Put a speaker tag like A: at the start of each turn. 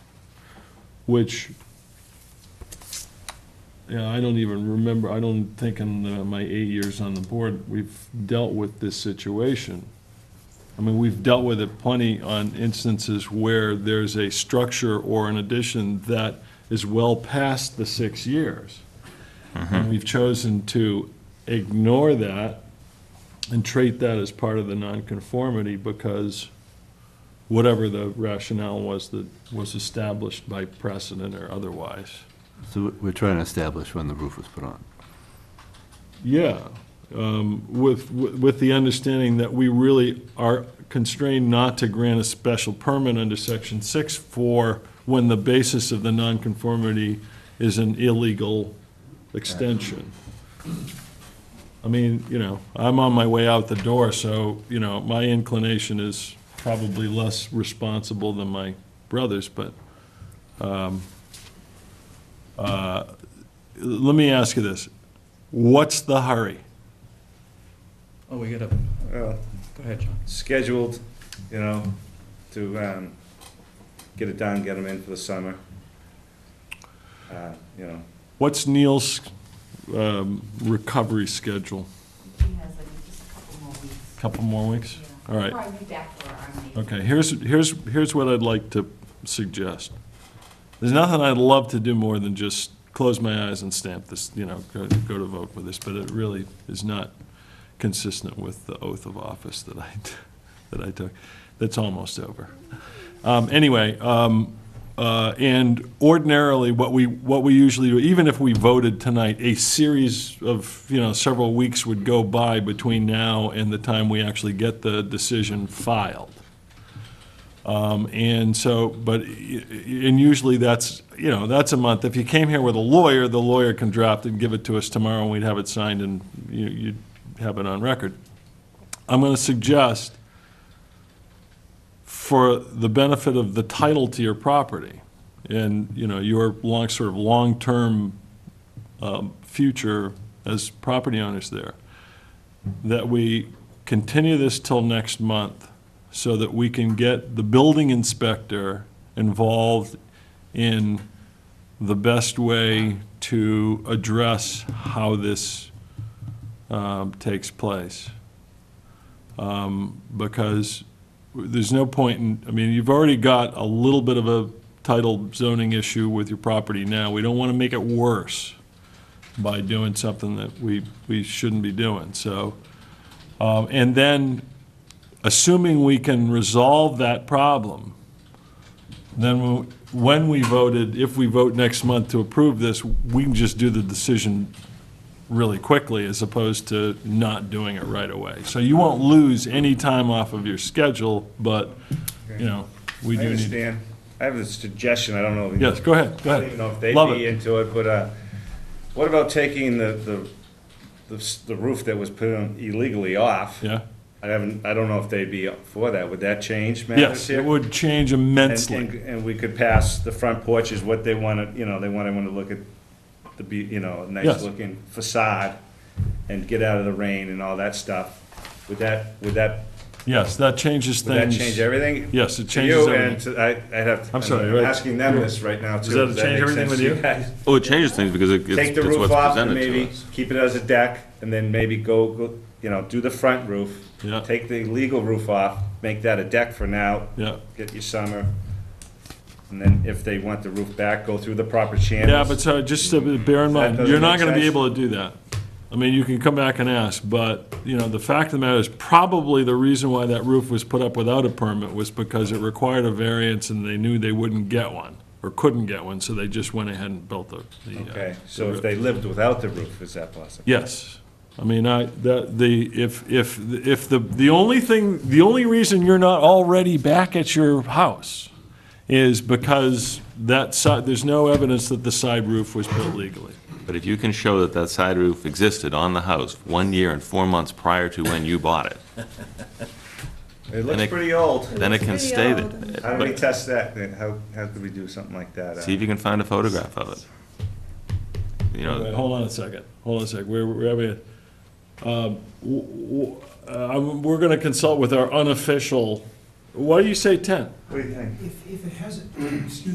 A: which, yeah, I don't even remember, I don't think in uh, my eight years on the board, we've dealt with this situation. I mean, we've dealt with it plenty on instances where there's a structure or an addition that is well past the six years. And we've chosen to ignore that and treat that as part of the nonconformity because whatever the rationale was that was established by precedent or otherwise.
B: So we're trying to establish when the roof was put on.
A: Yeah, um, with, with the understanding that we really are constrained not to grant a special permit under section six for when the basis of the nonconformity is an illegal extension. I mean, you know, I'm on my way out the door, so, you know, my inclination is probably less responsible than my brother's, but, um, uh, let me ask you this. What's the hurry?
C: Oh, we got a,
D: Well,
C: go ahead, John.
D: scheduled, you know, to um, get it done, get them in for the summer. Uh, You know,
A: What's Neil's um, recovery schedule?
E: He has like just a couple more weeks.
A: Couple more weeks?
E: yeah.
A: All right.
E: Probably be back for our meeting.
A: Okay, here's, here's, here's what I'd like to suggest. There's nothing I'd love to do more than just close my eyes and stamp this, you know, go go to vote for this, but it really is not consistent with the oath of office that I, t- that I took. That's almost over. Um, Anyway, um, uh, and ordinarily, what we, what we usually do, even if we voted tonight, a series of, you know, several weeks would go by between now and the time we actually get the decision filed. Um, And so, but, y- y- and usually that's, you know, that's a month. If you came here with a lawyer, the lawyer can draft and give it to us tomorrow, and we'd have it signed, and you- you'd have it on record. I'm going to suggest, for the benefit of the title to your property, and, you know, your long, sort of long-term um, future as property owners there, that we continue this till next month so that we can get the building inspector involved in the best way to address how this um, takes place. Um, Because there's no point in, I mean, you've already got a little bit of a title zoning issue with your property now. We don't want to make it worse by doing something that we, we shouldn't be doing, so. um, And then, assuming we can resolve that problem, then wh- when we voted, if we vote next month to approve this, we can just do the decision really quickly as opposed to not doing it right away. So you won't lose any time off of your schedule, but, you know, we
D: I
A: do need.
D: understand. I have a suggestion, I don't know. if you-
A: Yes, go ahead, go
D: I don't even know if
A: ahead.
D: they'd
A: Love
D: be
A: it.
D: into it, but uh, what about taking the, the- the s- the roof that was put on illegally off?
A: Yeah,
D: I haven't, I don't know if they'd be for that. Would that change matters
A: yes,
D: here?
A: it would change
D: And-
A: immensely.
D: And, and we could pass, the front porch is what they want to, you know, they want everyone to look at the, be you know,
A: Yes.
D: nice looking facade and get out of the rain and all that stuff. Would that, would that,
A: Yes, that changes
D: would that
A: things.
D: change everything?
A: Yes, it
D: To
A: changes
D: you
A: everything.
D: and to- I, I'd have. to-
A: I'm sorry, right?
D: Asking them this right now too.
A: Does that
D: Does
A: change
D: make
A: everything
D: sense
A: with
D: to
A: you?
D: guys?
B: Oh, it changes things because it-
D: Take
B: it's
D: the
B: it's
D: roof
B: what's
D: off and
B: presented to
D: maybe
B: us.
D: keep it as a deck and then maybe go, go, you know, do the front roof.
A: Yeah.
D: Take the legal roof off, make that a deck for now,
A: Yeah,
D: get your summer, and then if they want the roof back, go through the proper
A: yeah, but
D: channels.
A: so just to bear in
D: That
A: mind,
D: doesn't
A: you're not
D: make
A: gonna be
D: sense.
A: able to do that. I mean, you can come back and ask, but, you know, the fact of the matter is, probably the reason why that roof was put up without a permit was because it required a variance and they knew they wouldn't get one, or couldn't get one, so they just went ahead and built the, the. uh,
D: Okay,
A: the
D: so
A: roof.
D: if they lived without the roof, is that possible?
A: Yes. I mean, I, that, the, if, if, if the, the only thing, the only reason you're not already back at your house is because that side, there's no evidence that the side roof was built legally.
F: But if you can show that that side roof existed on the house one year and four months prior to when you bought it,
D: It looks
F: it-
D: pretty old.
F: then it can
E: Pretty
F: stay
E: old.
F: there.
D: How do we
F: But
D: test that? then? How, how could we do something like that? uh?
F: See if you can find a photograph of it.
A: Wait,
F: You know,
A: Hold on a second, hold on a sec, we're, we're having, um, w- w- uh, I'm- we're gonna consult with our unofficial, why do you say ten?
D: What do you think?
G: If, if it hasn't, excuse